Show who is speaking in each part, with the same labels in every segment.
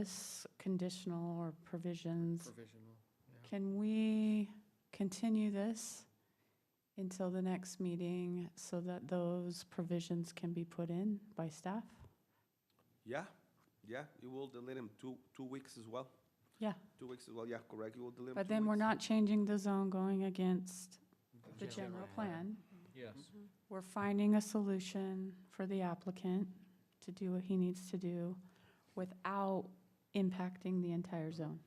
Speaker 1: this conditional or provisions,
Speaker 2: Provisional, yeah.
Speaker 1: can we continue this until the next meeting so that those provisions can be put in by staff?
Speaker 3: Yeah, yeah, you will delay them two, two weeks as well.
Speaker 1: Yeah.
Speaker 3: Two weeks as well, yeah, correct, you will delay them.
Speaker 1: But
Speaker 3: two
Speaker 1: then we're
Speaker 3: weeks.
Speaker 1: not changing the zone going against the general plan.
Speaker 4: Yes.
Speaker 3: Mm-hmm.
Speaker 1: We're finding a solution for the applicant to do what he needs to do without impacting the entire zone.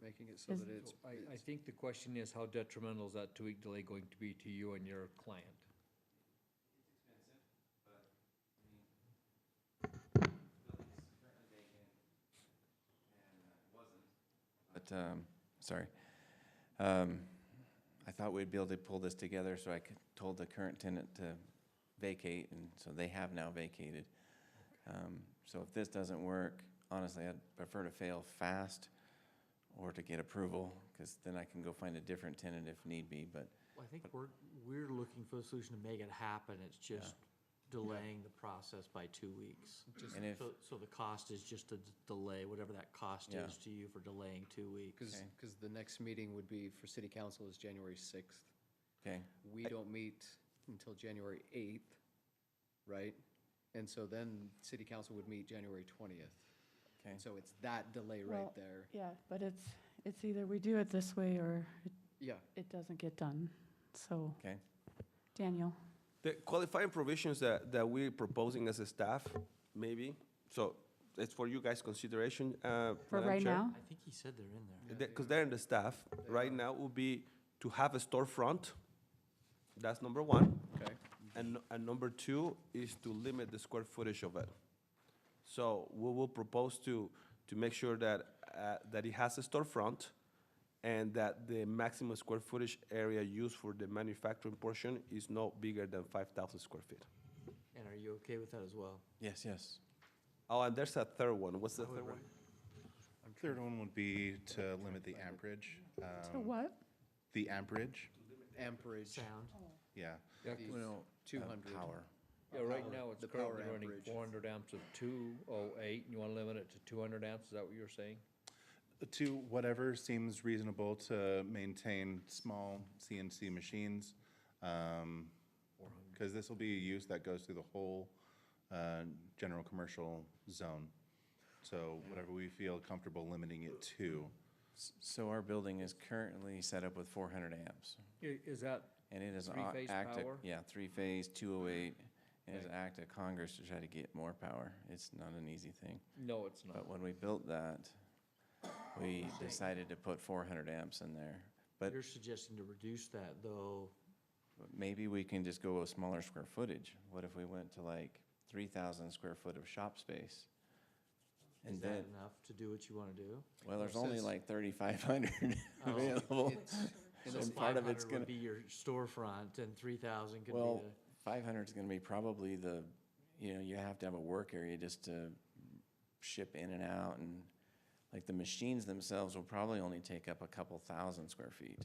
Speaker 2: Making it so
Speaker 1: Is-
Speaker 2: that it's,
Speaker 4: I, I think the question is, how detrimental is that two-week delay going to be to you and your client?
Speaker 5: But, um, sorry. Um, I thought we'd be able to pull this together, so I could, told the current tenant to vacate, and so they have now vacated. Um, so if this doesn't work, honestly, I'd prefer to fail fast or to get approval, because then I can go find a different tenant if need be, but
Speaker 6: Well, I think we're, we're looking for a solution to make it happen, it's just delaying the process by two weeks.
Speaker 2: Just-
Speaker 5: And if-
Speaker 6: So, so the cost is just a d- delay, whatever that cost
Speaker 5: Yeah.
Speaker 6: is to you for delaying two weeks.
Speaker 2: because,
Speaker 5: Okay.
Speaker 2: because the next meeting would be for city council is January 6th.
Speaker 5: Okay,
Speaker 2: We don't meet until January 8th, right? And so then city council would meet January 20th.
Speaker 5: okay.
Speaker 2: And so it's that delay right
Speaker 1: Well-
Speaker 2: there.
Speaker 1: Yeah, but it's, it's either we do it this way or it-
Speaker 2: Yeah,
Speaker 1: it doesn't get done, so.
Speaker 5: Okay.
Speaker 1: Daniel,
Speaker 3: The qualifying provisions that, that we're proposing as a staff, maybe, so it's for you guys' consideration, uh.
Speaker 1: for
Speaker 3: Madam
Speaker 1: right
Speaker 3: Chair.
Speaker 1: now,
Speaker 6: I think he said they're in there.
Speaker 3: Because they're in the staff, right now would be to have a storefront, that's number one.
Speaker 2: Okay.
Speaker 3: And, nu- and number two is to limit the square footage of it. So we will propose to, to make sure that, uh, that it has a storefront and that the maximum square footage area used for the manufacturing portion is no bigger than five thousand square feet.
Speaker 6: And are you okay with that as well?
Speaker 5: Yes, yes.
Speaker 3: Oh, and there's a third one, what's the third one?
Speaker 7: Third one would be to limit the amperage. um,
Speaker 1: to what?
Speaker 7: The amperage,
Speaker 2: amperage,
Speaker 6: Sound?
Speaker 7: yeah.
Speaker 4: Yeah,
Speaker 2: The-
Speaker 5: Well,
Speaker 2: 200.
Speaker 5: Power.
Speaker 4: yeah, right now, it's
Speaker 2: the power
Speaker 4: currently running
Speaker 2: amperage.
Speaker 4: four hundred amps of two oh eight, and you wanna limit it to two hundred amps, is that what you're saying?
Speaker 7: To whatever seems reasonable to maintain small CNC machines. Because this will be a use that goes through the whole uh, general commercial zone. So whatever we feel comfortable limiting it to.
Speaker 5: S- So our building is currently set up with four hundred amps.
Speaker 4: I- Is that,
Speaker 5: And it is a-
Speaker 4: Three-phase
Speaker 5: act of-
Speaker 4: power?
Speaker 5: Yeah, three-phase, 208, and it's an act of Congress to try to get more power. It's not an easy thing.
Speaker 4: no, it's not.
Speaker 5: But when we built that, we decided to put 400 amps in there. But
Speaker 6: You're suggesting to reduce that, though,
Speaker 5: maybe we can just go with smaller square footage. What if we went to like 3,000 square foot of shop space?
Speaker 6: is
Speaker 5: And
Speaker 6: that
Speaker 5: then,
Speaker 6: enough to do what you wanna do?
Speaker 5: well, there's only
Speaker 2: Says-
Speaker 5: like 3,500
Speaker 6: Oh,
Speaker 5: available.
Speaker 2: And
Speaker 6: So
Speaker 2: that's-
Speaker 5: And part of it's
Speaker 6: 500
Speaker 5: gonna-
Speaker 6: Would be your storefront, and three thousand could be
Speaker 5: Well,
Speaker 6: the.
Speaker 5: five hundred is gonna be probably the, you know, you have to have a work area just to ship in and out and, like, the machines themselves will probably only take up a couple thousand square feet.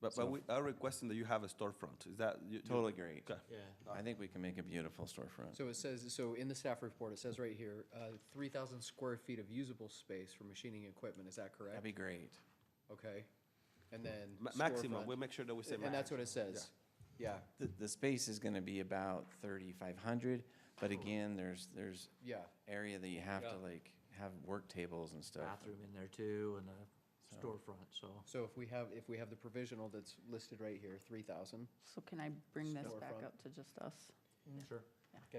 Speaker 3: But, but we are requesting that you have a storefront, is that? you- you-
Speaker 5: Totally great.
Speaker 3: Okay.
Speaker 6: Yeah.
Speaker 5: I think we can make a beautiful storefront.
Speaker 2: So it says, so in the staff report, it says right here, uh, 3,000 square feet of usable space for machining equipment, is that
Speaker 5: That'd
Speaker 2: correct?
Speaker 5: be great.
Speaker 2: Okay, and then.
Speaker 3: Ma- Maximum,
Speaker 2: storefront.
Speaker 3: we'll make sure that we say maximum.
Speaker 2: And that's what it says, yeah,
Speaker 5: The, the space is gonna be about thirty-five hundred, but again, there's, there's
Speaker 2: yeah.
Speaker 5: area that you have to
Speaker 4: Yeah.
Speaker 5: like have work tables and stuff.
Speaker 6: bathroom in there too and a storefront, so.
Speaker 2: So if we have, if we have the provisional that's listed right here, three thousand,
Speaker 8: So can I bring this back
Speaker 2: Storefront.
Speaker 8: up to just us?
Speaker 6: Sure.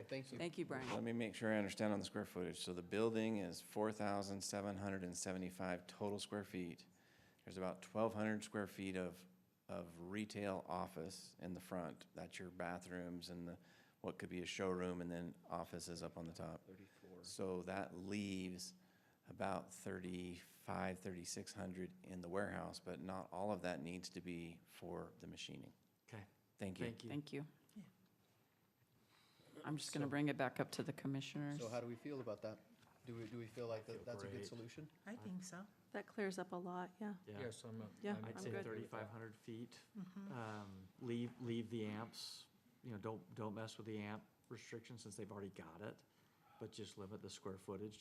Speaker 2: thank you.
Speaker 8: Thank you, Brian.
Speaker 5: Let me make sure I understand on the square footage. So the building is four thousand seven hundred and seventy-five total square feet. There's about twelve hundred square feet of, of retail office in the front. That's your bathrooms and the, what could be a showroom and then offices up on the top.
Speaker 2: Thirty-four.
Speaker 5: So that leaves about thirty-five, thirty-six hundred in the warehouse, but not all of that needs to be for the machining.
Speaker 6: Okay,
Speaker 5: Thank you.
Speaker 6: thank you.
Speaker 8: Thank you. I'm just going to bring it back up to the commissioners.
Speaker 2: So how do we feel about that? Do we, do we feel like that, that's a good
Speaker 6: great.
Speaker 2: solution?
Speaker 9: I think so.
Speaker 10: That clears up a lot, yeah.
Speaker 6: Yeah,
Speaker 4: Yes, I'm.
Speaker 10: Yeah,
Speaker 4: I'm
Speaker 6: I'd
Speaker 10: I'm
Speaker 6: say
Speaker 10: good. Mm-hmm.
Speaker 6: thirty-five hundred feet. Um, leave, leave the amps, you know, don't, don't mess with the amp restriction since they've already got it, but just limit the square footage